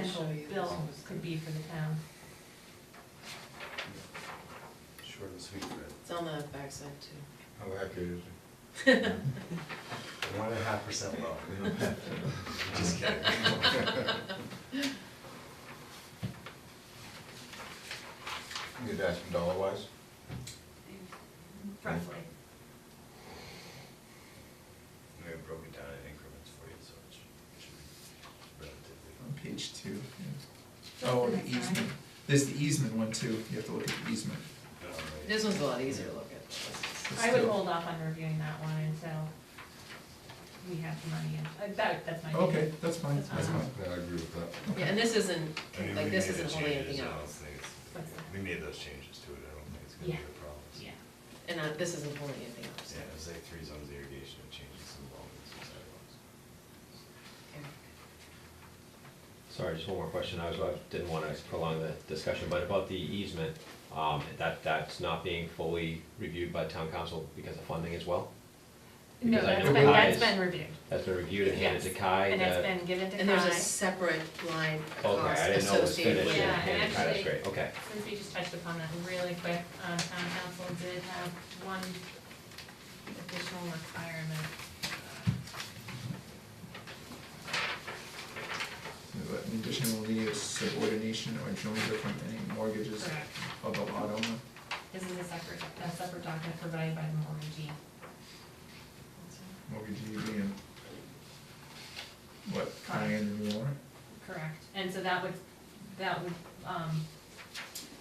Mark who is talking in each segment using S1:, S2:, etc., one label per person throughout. S1: actual bill could be for the town.
S2: Short and sweet, Fred.
S3: It's on the backside too.
S2: How accurate is it? One and a half percent low. Just kidding.
S4: You'd ask him dollar wise?
S1: Roughly.
S2: We have broken down in increments for you, so it should- it should be
S5: On
S2: relatively.
S5: page two. yeah. Oh, the easement. There's the easement one too. You have to look at the easement.
S2: down, right?
S3: This one's a lot easier to look at. than
S1: I would hold off on reviewing that one until we have the money in, Uh, that, that's my.
S5: Okay, that's fine,
S1: That's
S5: that's
S1: fine.
S5: fine.
S4: Yeah, I agree with that.
S3: this. Yeah, and this isn't,
S2: I mean, we
S3: like, this
S2: made the
S3: isn't holding
S2: changes,
S3: anything
S2: I don't
S3: else.
S2: think it's-
S1: What's that?
S2: We made those changes to it, I don't think it's gonna be
S1: Yeah.
S2: a problem.
S1: Yeah,
S3: and uh, this isn't holding anything else.
S2: Yeah, it was like three zones of irrigation, and changes some lawns and sidewalks.
S3: Okay.
S6: Sorry, just one more question. I was, I didn't want to prolong the discussion, but about the easement, um, that, that's not being fully reviewed by town council because of funding as well?
S1: no,
S6: Because I
S1: that's
S6: know
S1: been, that's
S6: Kai's-
S1: been reviewed,
S6: That's been reviewed and handed to
S1: Yes.
S6: Kai?
S1: and that's
S6: that-
S1: been given to Kai.
S3: And there's a separate line of
S6: Okay, I
S3: cost
S6: didn't know it was
S3: associated
S6: finished
S3: with.
S6: and
S1: Yeah,
S6: handed to Kai, that's
S1: actually-
S6: great, okay.
S1: Since we just touched upon that really quick, uh, town council did have one additional requirement. uh,
S5: But In addition, we need a subordination or jointer from any mortgages
S1: Correct.
S5: of the lot owner.
S1: This is a separate, a separate document provided by the mortgagee.
S5: Mortgagee being, E what, Kai and Warren?
S1: Correct. And so that would, that would, um,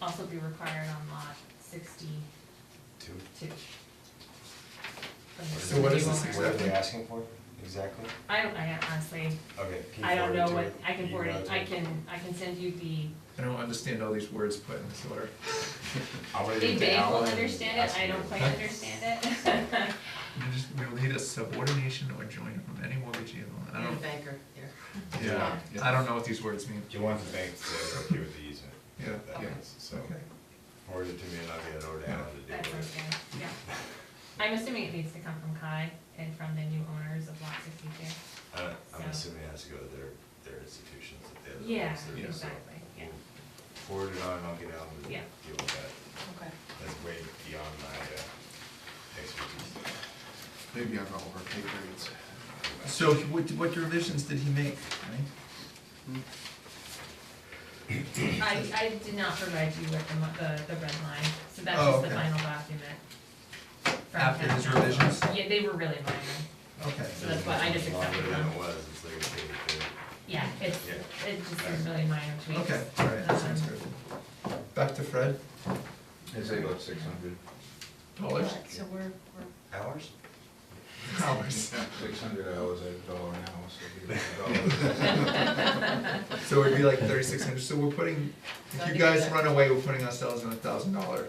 S1: also be required on lot sixty-two.
S2: Two?
S1: from the
S5: So what is
S1: new
S5: this
S1: owner.
S2: What are they asking for, exactly?
S1: I don't, I honestly,
S2: Okay. can you
S1: I don't
S2: forward it
S1: know
S2: to
S1: what,
S2: me?
S1: I can
S2: You
S1: forward
S2: know
S1: it,
S2: to
S1: I
S2: me?
S1: can, I can send you the,
S5: I don't understand all these words put in this order.
S2: I'm gonna
S1: they
S2: do
S1: vague will
S2: Alan and
S1: understand
S2: ask
S1: it, I
S2: him
S1: don't
S2: to-
S1: quite understand it.
S5: We just, we'll need a subordination or jointer from any E mortgagee of the lot. I
S3: And a
S5: don't,
S3: banker here.
S5: yeah,
S2: Yeah.
S5: I don't know what these words mean.
S2: Do you want the bank to say they're okay with the easement?
S5: Yeah.
S2: That
S5: Yeah.
S2: is, So,
S5: Okay.
S2: forward it to me and I'll get it over to Alan to deal
S1: That's
S2: with it.
S1: okay, yeah. I'm assuming it needs to come from Kai and from the new owners of lot sixty-two.
S2: Uh, I'm
S1: So-
S2: assuming it has to go to their, their institutions that they're. the
S1: Yeah,
S2: ones that are- so
S1: exactly, yeah.
S2: we'll Forward it on and I'll get Alan to deal
S1: Yeah.
S2: with that.
S3: Okay.
S2: That's way beyond my uh, expertise.
S4: Maybe I'm not over pay grades.
S5: So he- what, what revisions did he make, right?
S1: I, I did not provide you with the, mo- the, the red line, so that's
S5: Oh,
S1: just the
S5: okay.
S1: final document. from
S5: After
S1: town
S5: his
S1: council.
S5: revisions?
S1: Yeah, they were really minor,
S5: Okay.
S1: So that's why I just accepted
S2: Longer than
S1: them.
S2: it was, it's like a big thing.
S1: yeah, it's,
S2: Yeah.
S1: it just is really minor tweaks.
S5: Okay, all right, that sounds
S1: Um,
S5: good. Back to Fred.
S4: I'd say about six hundred.
S5: Dollars?
S3: Alright, So we're, we're
S2: Hours?
S5: Dollars.
S4: Six hundred hours at a dollar an hour, so it'd be about a dollar.
S5: So it'd be like thirty-six hundred, so we're putting, if you guys run away, we're putting ourselves in a thousand dollar.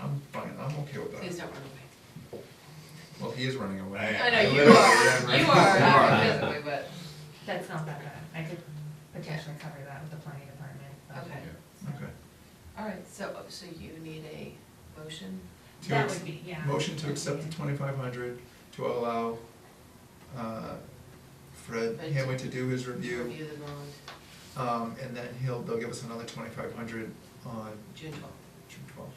S5: I'm fine, I'm okay with
S3: Please
S5: that.
S3: don't run away.
S5: Well, he is running away.
S2: I-
S3: I know,
S2: literally-
S3: you are,
S2: yeah,
S3: you
S2: right.
S3: are, not physically, but,
S1: That's not that bad, I could potentially cover that with the planning department. um,
S3: Okay.
S5: Okay.
S3: all right, so, oh, so you need a motion?
S5: To
S1: That
S5: ex-
S1: would be, yeah.
S5: Motion to accept the twenty-five hundred to allow, uh, Fred
S3: Fred to-
S5: Hamway to do his review.
S3: Review the bond,
S5: Um, and then he'll, they'll give us another twenty-five hundred on
S3: June twelfth.
S5: June twelfth.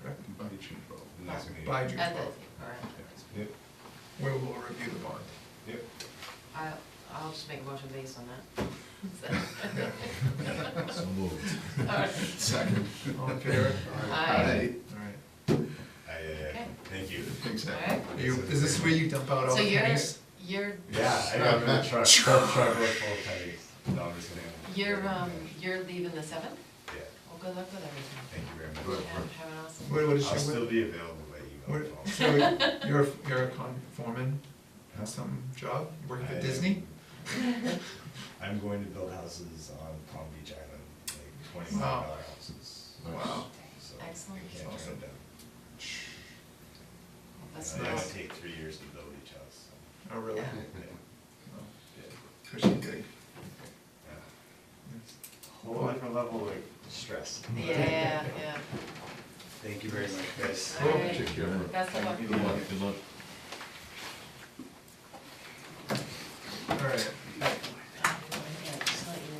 S5: Correct?
S4: By June twelfth.
S2: Nice meeting you.
S5: By June
S3: At the, all
S5: twelfth,
S3: right,
S2: Yep,
S5: where we'll review the bond.
S2: yep.
S3: I, I'll just make a motion based on that. So-
S4: So moved.
S3: All right.
S4: Second.
S5: All in favor?
S3: Aye.
S5: Alright.
S2: I, uh,
S3: Okay.
S2: thank you.
S4: Thanks,
S3: All
S4: Al.
S3: right.
S5: Are you- Is this where you dump out all
S3: So
S5: the
S3: you're,
S5: pennies?
S3: you're,
S2: Yeah, I got a truck, truck, truck with full tires. No, I'm just kidding.
S3: you're, um, you're leaving the seventh?
S2: Yeah,
S3: Well, good luck with everything.
S2: thank you very
S3: Yeah,
S2: much.
S3: have an awesome.
S5: What, what is
S2: I'll
S5: she,
S2: still
S5: what,
S2: be available by email.
S5: what- so you're, a- you're a con foreman,
S2: Huh?
S5: has some job, You working
S2: I-
S5: for Disney?
S2: I'm going to build houses on Palm Beach Island, like twenty
S5: Wow.
S2: million dollar houses.
S5: Wow.
S2: So
S3: Excellent.
S2: I can't turn
S5: Awesome.
S2: it down.
S3: That's
S2: And It might
S3: nice.
S2: take three years to build each house. so,
S5: Oh, really?
S3: Yeah.
S2: yeah,
S5: Oh,
S2: yeah,
S5: Cushy gig.
S2: yeah.
S5: Yes.
S2: Whole different level of stress.
S3: Yeah, yeah.
S2: Thank you very much, guys.
S3: All right. Best of luck.
S4: Good luck. Good luck.